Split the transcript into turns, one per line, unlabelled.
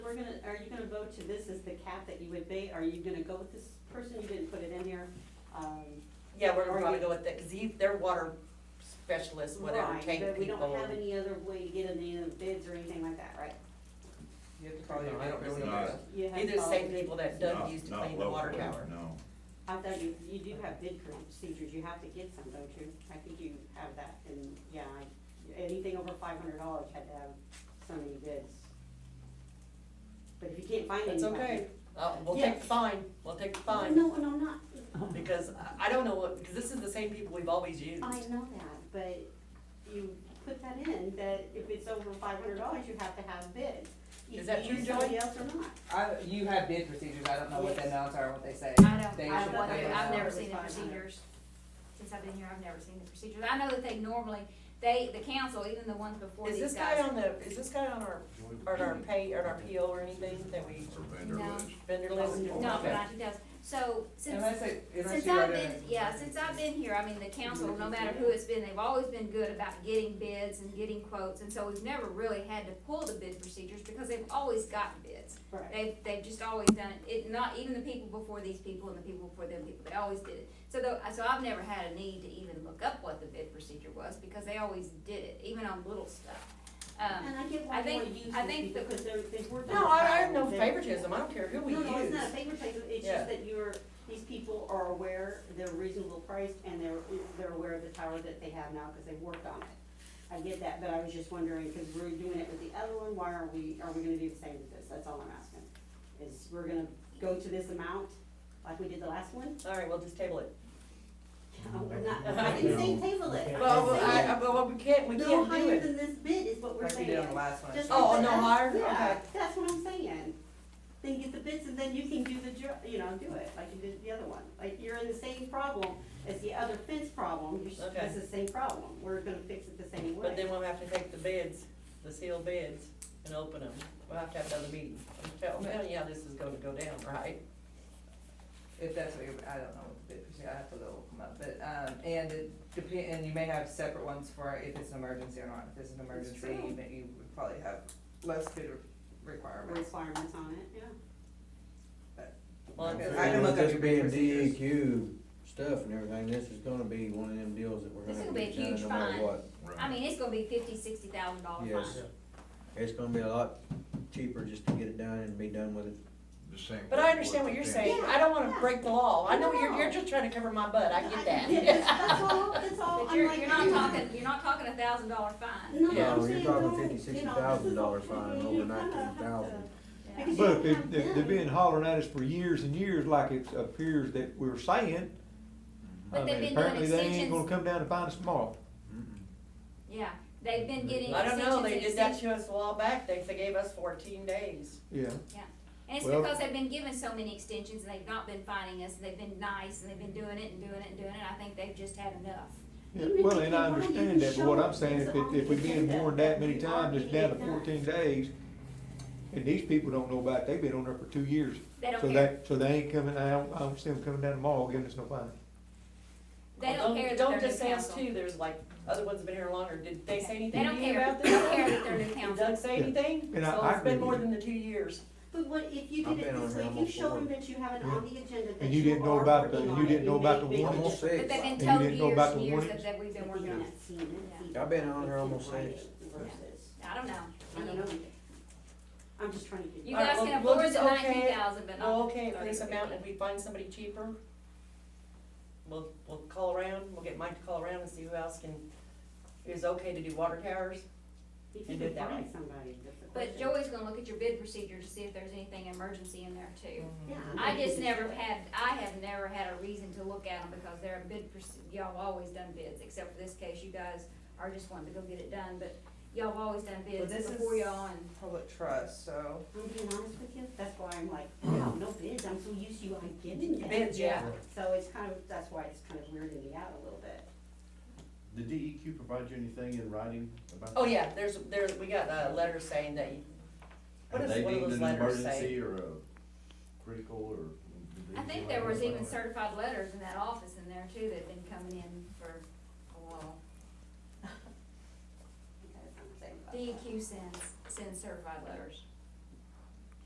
to this as the cap that you would pay, are you gonna go with this person, you didn't put it in here? Um,
Yeah, we're
Or
gonna probably
you-
go with that, cause he, they're water specialists, whatever,
right,
tank
but We
people.
don't have
and-
any other way to get any other bids or anything like that, right?
You have to call your
No, I don't
neighbors.
really
and-
know.
You have
Either the same
all the-
people that Doug
Not-
used to
not
clean the water
locally,
tower.
No,
I thought you, you do have bid procedures, you have to get some, don't you? I think you have that, and, yeah, I- anything over five hundred dollars had to have so many bids. But if you can't find any.
That's okay, uh, we'll
Yeah.
take the fine, we'll take the fine,
No, and I'm not,
because I- I don't know what, because this is the same people we've always used.
I know that, but you put that in, that if it's over five hundred dollars, you have to have bids.
Is that
Either you
true,
use somebody
Joey?
else or not.
I, you have bid procedures, I don't know what the
Yes.
amounts are, what they say.
I
They
don't, I
usually
don't,
put those
I've
out.
never seen the
500.
procedures. Since I've been here, I've never seen the procedures. I know that they normally, they, the council, even the ones before
Is
these guys.
this guy on the, is this guy on our, on our pay, on our PO or anything that we
or vendor
No.
list.
vendor list?
No,
Okay.
but I, he does. So since,
Unless it, unless
since
you write
I've
it
been,
in.
yeah, since I've been here, I mean, the council, no matter who it's been, they've always been good about getting bids and getting quotes. And so we've never really had to pull the bid procedures because they've always gotten bids.
Right.
They've, they've just always done it, it, not even the people before these people and the people before them people, they always did it. So though, so I've never had a need to even look up what the bid procedure was, because they always did it, even on little stuff. Um,
And I get
I
why you
think-
wanna use
I
these
think the-
because they're, they've worked on.
No, I, I have no
they've-
favoritism, I don't care who we
No, no, it's
use.
not a favoritism, it's
Yeah.
just that you're, these people are aware, they're reasonable priced, and they're, they're aware of the tower that they have now, cause they've worked on it. I get that, but I was just wondering, cause we're doing it with the other one, why are we, are we gonna do the same with this, that's all I'm asking. Is we're gonna go to this amount, like we did the last one?
All right, we'll just table it.
No, we're not, I didn't say table it,
Well,
I'm
well,
just
I,
saying,
I, well, we can't, we
no
can't do
higher
it.
than this bid is what we're
Like we
saying.
did on the last one.
Just
Oh,
like
no
that.
higher?
Yeah,
Okay.
that's what I'm saying. Then get the bids and then you can do the jo, you know, do it, like you did the other one. Like, you're in the same problem as the other fence problem, you're, s-
Okay.
it's the same problem, we're gonna fix it the same way.
But then we'll have to take the bids, the sealed bids, and open them. We'll have to have another meeting. I'm tell- I'm telling you how this is gonna go down, right?
If that's what you're, I don't know what the bid procedure, I have to look them up, but, um, and it depend, and you may have separate ones for if it's an emergency or not. If it's an emergency,
true.
you may, you would probably have less bid re- requirements.
Requirements on it, yeah.
Well, I'm-
Okay.
With
I can look up
This
your
being
papers.
DEQ stuff and everything, this is gonna be one of them deals that we're
This
gonna
will
have
be a
to get
huge
done no matter
fine.
what.
I mean, it's gonna be fifty, sixty thousand dollar fine.
Yes. It's gonna be a lot cheaper just to get it done and be done with it.
The same.
But I understand what you're saying. I don't wanna break the law. I know you're, you're just trying to cover my butt. I get
That's
that.
that's all, that's all,
But
I'm
you're,
like.
you're not talking, you're not talking a thousand dollar fine.
No, I'm saying,
Yeah,
don't,
you're
you
talking
know,
50,
this is
60,000 dollar
all-
fine
you
over
kinda have
19,000.
to-
Yeah.
Because you
But
don't
if,
have
if they're
them.
being hollering at us for years and years like it appears that we're saying, I
But they've been
mean,
doing
apparently they ain't gonna
extensions,
come down and find us tomorrow.
yeah, they've been getting extensions and extensions.
I don't know, they did that to us a while back. They, they gave us fourteen days.
Yeah,
And it's
Well-
because they've been given so many extensions and they've not been finding us, and they've been nice, and they've been doing it and doing it and doing it, I think they've just had enough.
yeah,
Even
well,
if
and
you
I
want, you
understand
can
that, but what
show
I'm saying,
it's
if, it-
on
if we're
the
being
agenda
warned that many
you are
times, it's down to
getting it done.
fourteen days. And these people don't know about, it. they've been on there for two years.
They don't
So
care,
that, so they ain't coming, I don't, I don't see them coming down tomorrow giving us no fine.
they don't care that they're new council.
Don't just say us too. There's like, other ones have been here longer. Did they say anything
They
to
don't
you
care,
about
they don't
this?
care that they're new
Did
council.
Doug say anything?
And I-
So
I
it's been
agree
more
with you.
than the two years.
But what, if you
I've
did it
been on
this way,
here
if you
almost
show them
forty.
that you have it
Yeah.
on the agenda, that
And you
you
didn't know
are
about the-
working
you
on it,
didn't know
may-
about the
may
I'm
not
Almost
just-
But
six.
they've been
you
told
didn't know about
years
the
and years that,
warnings?
that we've been working on it.
I've been on here almost six.
Versus-
I don't know.
I don't know. I'm just trying to get.
You
All right,
guys
well,
can
we'll
afford
just
the
okay it.
nineteen thousand, but
Well,
not
okay,
thirty
if
or
this amount, and
fifty.
we find somebody cheaper, we'll, we'll call around, we'll get Mike to call around and see who else can, is okay to do water towers.
If you
you do
can
it that
find
way.
somebody, that's the
But
question.
Joey's gonna look at your bid procedure to see if there's anything emergency in there too.
Yeah.
Mm-hmm.
I
think
just
we
never
should.
had, I have never had a reason to look at them because they're a bid, proce- y'all always done bids, except for this case, you guys are just wanting to go get it done, but y'all have always done
Well,
bids
this is
before y'all and.
Public trust, so.
I'm being honest with you, that's why I'm like, wow, no bids, I'm so used to you, I get it.
Bids, yeah.
So it's kind of, that's why it's kind of weirding me out a little bit.
Did DEQ provide you anything in writing about?
Oh, yeah, there's, there's, we got a letter saying that, you- what does one of those letters
Have they
say?
deemed an emergency or a critical or? did
I
they
think
do
there was
anything
even
like that?
certified letters in that office in there too that've been coming in for a while.
Okay, that's what I'm saying about that.
DEQ E sends, sends certified letters.